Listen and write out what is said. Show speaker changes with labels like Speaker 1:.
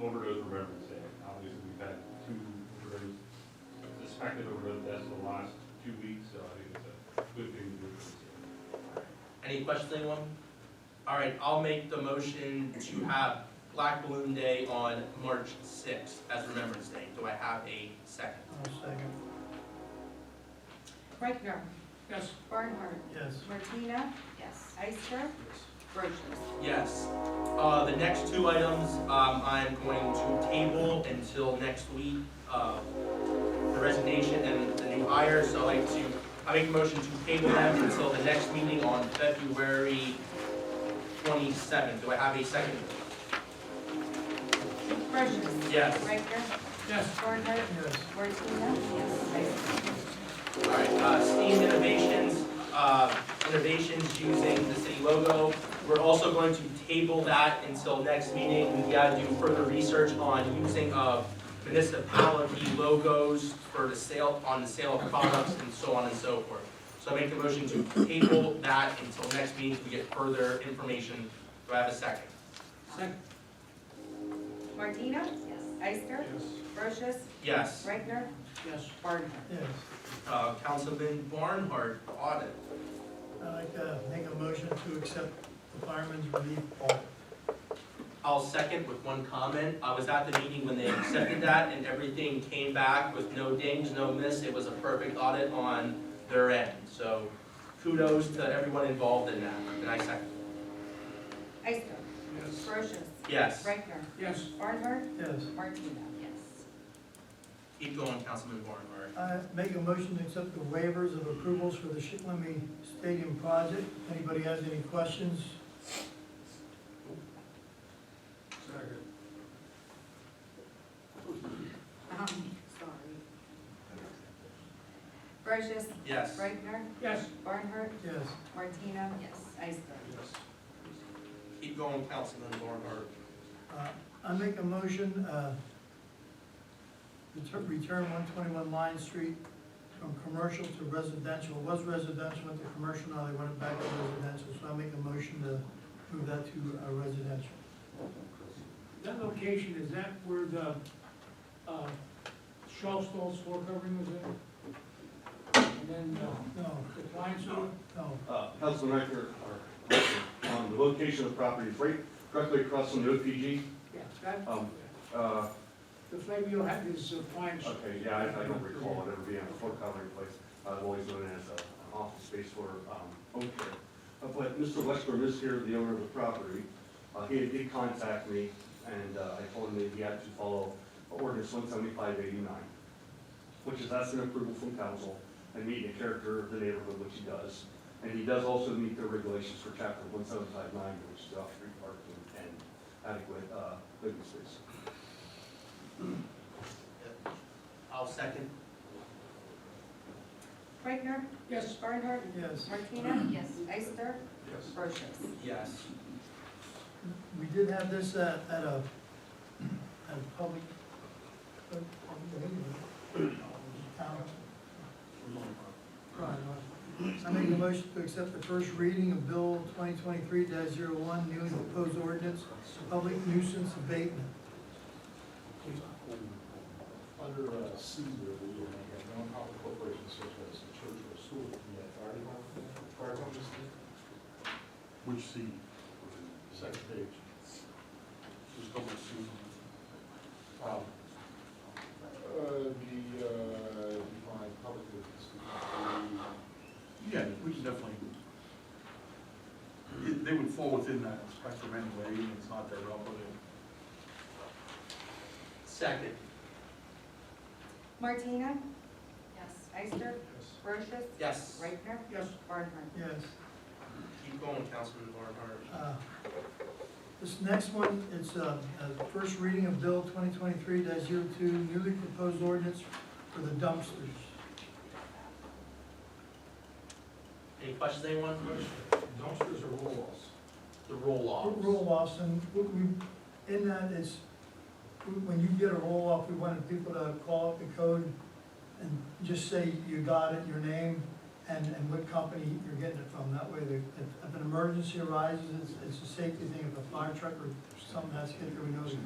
Speaker 1: overdose we're referencing, obviously we've had two overdose, suspected overdose deaths the last two weeks, so I think it's a good thing to do.
Speaker 2: Any questions, anyone? All right, I'll make the motion to have Black Balloon Day on March sixth as Remembrance Day. Do I have a second?
Speaker 3: I'll second.
Speaker 4: Rechner.
Speaker 3: Yes.
Speaker 4: Barnhart.
Speaker 3: Yes.
Speaker 4: Martina. Yes. Ister. Brochus.
Speaker 2: Yes. Uh, the next two items, um, I'm going to table until next week, uh, the resignation and the new hire, so I'd like to, I make a motion to table them until the next meeting on February twenty-seventh. Do I have a second?
Speaker 4: Brochus.
Speaker 2: Yes.
Speaker 4: Rechner.
Speaker 3: Yes.
Speaker 4: Barnhart.
Speaker 3: Yes.
Speaker 4: Martina. Yes.
Speaker 2: Alright, uh, STEAM Innovations, uh, innovations using the city logo. We're also going to table that until next meeting. We gotta do further research on using of municipality logos for the sale, on the sale of products and so on and so forth. So I make the motion to table that until next meeting, we get further information. Do I have a second?
Speaker 4: Ister. Martina. Yes. Ister.
Speaker 1: Yes.
Speaker 4: Brochus.
Speaker 2: Yes,
Speaker 4: Rechner.
Speaker 3: Yes.
Speaker 4: Barnhart.
Speaker 3: Yes.
Speaker 2: uh, Councilman Barnhart, audit.
Speaker 3: I'd like to make a motion to accept the fireman's relief audit.
Speaker 2: I'll second with one comment. I was at the meeting when they accepted that and everything came back with no dings, no miss. It was a perfect audit on their end. So kudos to everyone involved in that. And I second.
Speaker 4: Ister.
Speaker 1: Yes.
Speaker 4: Brochus.
Speaker 2: Yes.
Speaker 4: Rechner.
Speaker 3: Yes.
Speaker 4: Barnhart.
Speaker 3: Yes.
Speaker 4: Martina. Yes.
Speaker 2: Keep going, Councilman Barnhart.
Speaker 3: I make a motion to accept the waivers of approvals for the Shitlemy Stadium project. Anybody has any questions?
Speaker 4: Um, sorry. Brochus.
Speaker 2: Yes.
Speaker 4: Rechner.
Speaker 3: Yes.
Speaker 4: Barnhart.
Speaker 3: Yes.
Speaker 4: Martina. Yes. Ister.
Speaker 2: Keep going, Councilman Barnhart.
Speaker 3: Uh, I make a motion, uh, retur- return one twenty-one Lion Street from commercial to residential, It was residential, went to commercial, now they want it back to residential, so I make a motion to move that to uh, residential.
Speaker 5: That location, is that where the, uh, shelf stalls floor covering was at? And then, uh,
Speaker 3: No,
Speaker 5: the appliance store?
Speaker 3: no,
Speaker 6: Uh, Councilman Reichner, or, on the location of the property, is right directly across from the OPG.
Speaker 5: Yeah, that,
Speaker 6: Um, uh,
Speaker 5: the Flavio had his appliance.
Speaker 6: okay, yeah, I, I don't recall it ever being a floor covering place. I've always known it as a- an office space for, um, home care. Uh, But Mr. Westbrook is here, the owner of the property. Uh, he did contact me, and, uh, I told him that he had to follow ordinance one seventy-five eighty-nine, which is asking approval from council and meeting the character of the neighborhood, which he does. And he does also meet the regulations for chapter one seven five nine, which is off-street parking and adequate, uh, living space.
Speaker 2: I'll second.
Speaker 4: Rechner.
Speaker 5: Yes,
Speaker 4: Barnhart.
Speaker 3: yes.
Speaker 4: Martina. Yes. Ister.
Speaker 1: Yes.
Speaker 4: Brochus.
Speaker 2: Yes.
Speaker 3: We did have this at, at a, at a public, uh, public meeting, uh, town. Right, right. I make a motion to accept the first reading of Bill twenty twenty-three one new and proposed ordinance, public nuisance abatement.
Speaker 7: Under uh, C, where we will make a non-profit corporation such as a church or school, can be a fire department, fire department,
Speaker 1: Which C?
Speaker 7: second page.
Speaker 1: Just double C.
Speaker 7: Um, uh, The, uh, define public business.
Speaker 8: Yeah, we can definitely. it- They would fall within that spectrum anyway, and it's not that relevant.
Speaker 2: Second.
Speaker 4: Martina. Yes. Ister. Brochus.
Speaker 2: Yes.
Speaker 4: Rechner.
Speaker 5: yes,
Speaker 4: Barnhart.
Speaker 3: Yes.
Speaker 2: Keep going, Councilman Barnhart.
Speaker 3: Uh, This next one, it's uh, a first reading of Bill twenty twenty-three 2 newly proposed ordinance for the dumpsters.
Speaker 2: Any questions, anyone?
Speaker 7: Dumpsters or roll-offs?
Speaker 2: The roll-offs.
Speaker 3: roll offs, and what we, in that is, w- when you get a roll off, we wanted people to call up the code and just say you got it, your name, and, and what company you're getting it from, that way, the- if, if an emergency arises, it's, it's a safety thing, if a fire truck or something has hit, there, we know the